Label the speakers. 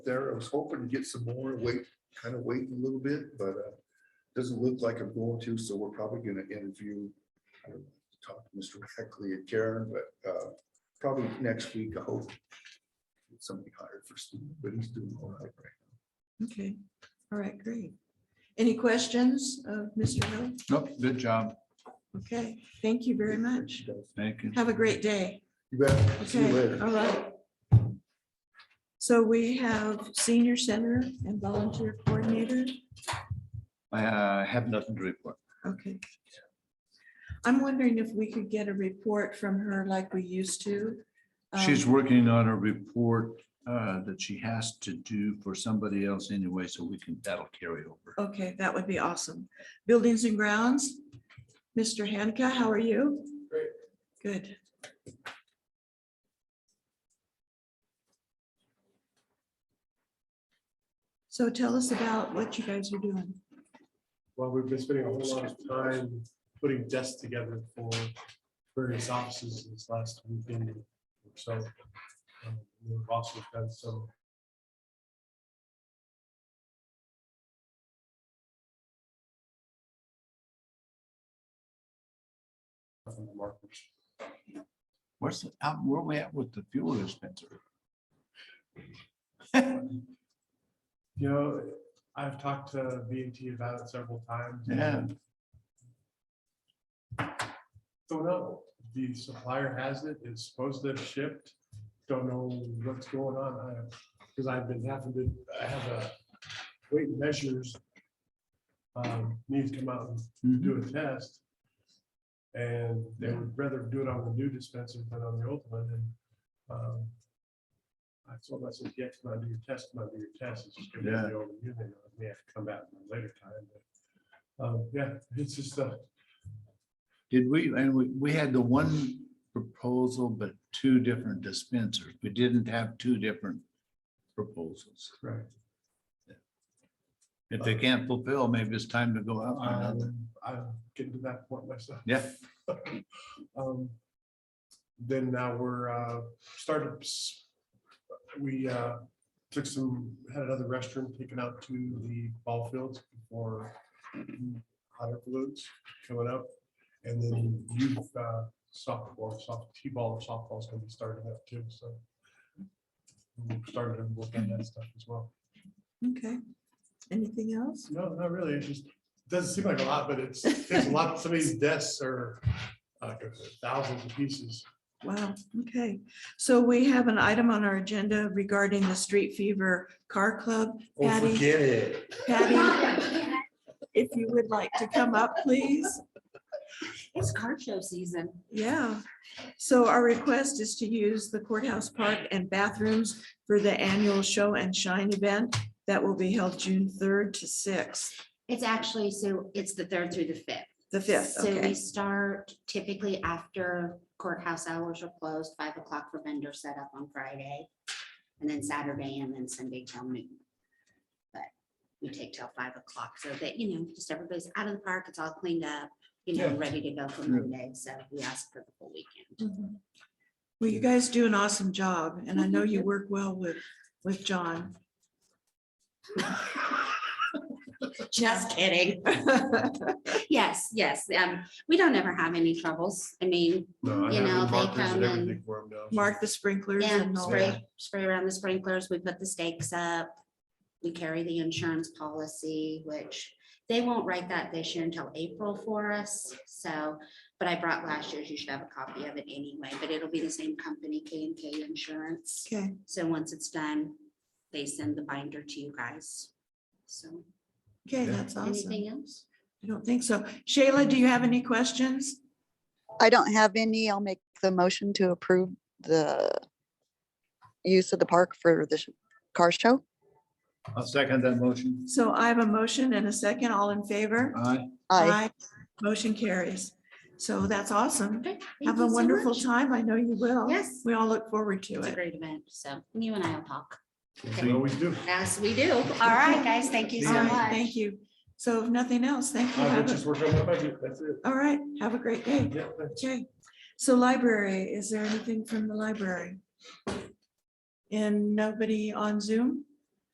Speaker 1: there. I was hoping to get some more, wait, kind of wait a little bit, but uh, doesn't look like I'm going to, so we're probably gonna interview. I don't know, Talk to Mr. Heckley and Karen, but uh, probably next week, I hope. get Somebody hired for Steve, but he's doing all right right
Speaker 2: Okay, all right, great. Any questions of Mr. Hill?
Speaker 3: Nope, good job.
Speaker 2: Okay, thank you very
Speaker 1: now.
Speaker 2: much.
Speaker 3: Thank you.
Speaker 2: Have a great day.
Speaker 1: You bet. See you
Speaker 2: Okay,
Speaker 1: later.
Speaker 2: all right. So we have senior center and volunteer coordinator.
Speaker 3: I uh, have nothing to report.
Speaker 2: Okay. I'm wondering if we could get a report from her like we used to. um,
Speaker 3: She's working on a report uh, that she has to do for somebody else anyway, so we can, that'll carry over.
Speaker 2: Okay, that would be awesome. Buildings and grounds, Mr. Hanka, how are you?
Speaker 1: Great.
Speaker 2: Good. So tell us about what you guys are doing.
Speaker 4: Well, we've been spending a whole lot of time putting desks together for various offices this last weekend. or So um, we've also done some. on the markers.
Speaker 3: Where's, the- uh, where we at with the fuel dispenser?
Speaker 4: You know, I've talked to B and T about it several times.
Speaker 3: Yeah.
Speaker 4: Don't know. The supplier has it. It's supposed to have shipped. Don't know what's going on. Because I've been having to, I have a weight and measures. um, Need to come out and
Speaker 3: Mm-hmm.
Speaker 4: do a test. And they would rather do it on the new dispenser than on the old one. And um, I told them, I said, yeah, come out, do your test, come out, do your test. It's just gonna
Speaker 3: Yeah.
Speaker 4: be over you. They may have to come back at a later time. but, um, Yeah, it's just uh, a.
Speaker 3: Did we, and we, we had the one proposal, but two different dispensers. We didn't have two different proposals.
Speaker 4: Right.
Speaker 3: If they can't fulfill, maybe it's time to go out for another.
Speaker 4: Um, I'm getting to that point myself.
Speaker 3: Yeah.
Speaker 4: Um, Then now we're uh, startups. We uh, took some, had another restroom taken out to the ball fields for hotter balloons coming up. And then youth uh, softball, soft, T-ball, and softball's gonna be starting up too, so. We've started to work on that stuff as well.
Speaker 2: Okay, anything else?
Speaker 4: No, not really. It just doesn't seem like a lot, but it's, it's a lot. Some of these desks are uh, thousands of pieces.
Speaker 2: Wow, okay. So we have an item on our agenda regarding the Street Fever Car Club. Patty,
Speaker 4: it.
Speaker 2: Patty, if you would like to come up, please.
Speaker 5: It's car show season.
Speaker 2: Yeah, so our request is to use the courthouse park and bathrooms for the annual show and shine event that will be held June third to sixth,
Speaker 5: It's actually, so it's the third through the fifth.
Speaker 2: the fifth,
Speaker 5: So we
Speaker 2: okay,
Speaker 5: start typically after courthouse hours are closed, five o'clock for vendor setup on Friday. And then Saturday and then Sunday till noon. But we take till five o'clock so that, you know, just everybody's out of the park, it's all cleaned up, you know,
Speaker 4: Yeah.
Speaker 5: ready to go for
Speaker 3: Yeah.
Speaker 5: Monday. So we ask for the full weekend.
Speaker 2: Mhm. Well, you guys do an awesome job, and I know you work well with, with John.
Speaker 5: Just kidding. Yes, yes. Um, we don't ever have any troubles. I mean,
Speaker 4: No, I
Speaker 5: You know,
Speaker 4: have
Speaker 5: they
Speaker 4: the markers
Speaker 5: come
Speaker 4: and everything
Speaker 5: and
Speaker 4: for 'em now. so-
Speaker 2: Mark the sprinklers
Speaker 5: Yeah,
Speaker 2: and all that.
Speaker 5: spray, spray around the sprinklers. We put the stakes up. We carry the insurance policy, which they won't write that this year until April for us. So, but I brought last year's. You should have a copy of it anyway, but it'll be the same company, K and K Insurance.
Speaker 2: Okay,
Speaker 5: So once it's done, they send the binder to you guys. So
Speaker 2: okay, that's awesome.
Speaker 5: anything else?
Speaker 2: I don't think so. Shayla, do you have any questions?
Speaker 6: I don't have any. I'll make the motion to approve the use of the park for the sh- car show.
Speaker 3: I'll second that motion.
Speaker 2: So I have a motion and a second, all in favor?
Speaker 3: Aye.
Speaker 6: I,
Speaker 2: Motion carries. So that's awesome.
Speaker 5: Okay, thank
Speaker 2: Have
Speaker 5: you
Speaker 2: a
Speaker 5: so
Speaker 2: wonderful
Speaker 5: much.
Speaker 2: time. I know you will.
Speaker 5: Yes.
Speaker 2: We all look forward to
Speaker 5: It's a
Speaker 2: it.
Speaker 5: great event. So you and I will talk.
Speaker 4: We always do.
Speaker 5: Yes, we do. All right, guys. Thank you
Speaker 2: All
Speaker 5: so
Speaker 2: right,
Speaker 5: much.
Speaker 2: Thank you. So if nothing else, thank you.
Speaker 4: I'm
Speaker 2: Have
Speaker 4: just
Speaker 2: a-
Speaker 4: working on my budget. That's it.
Speaker 2: All right, have a great day.
Speaker 4: Yeah, thanks.
Speaker 2: Okay, so library, is there anything from the library? And nobody on Zoom?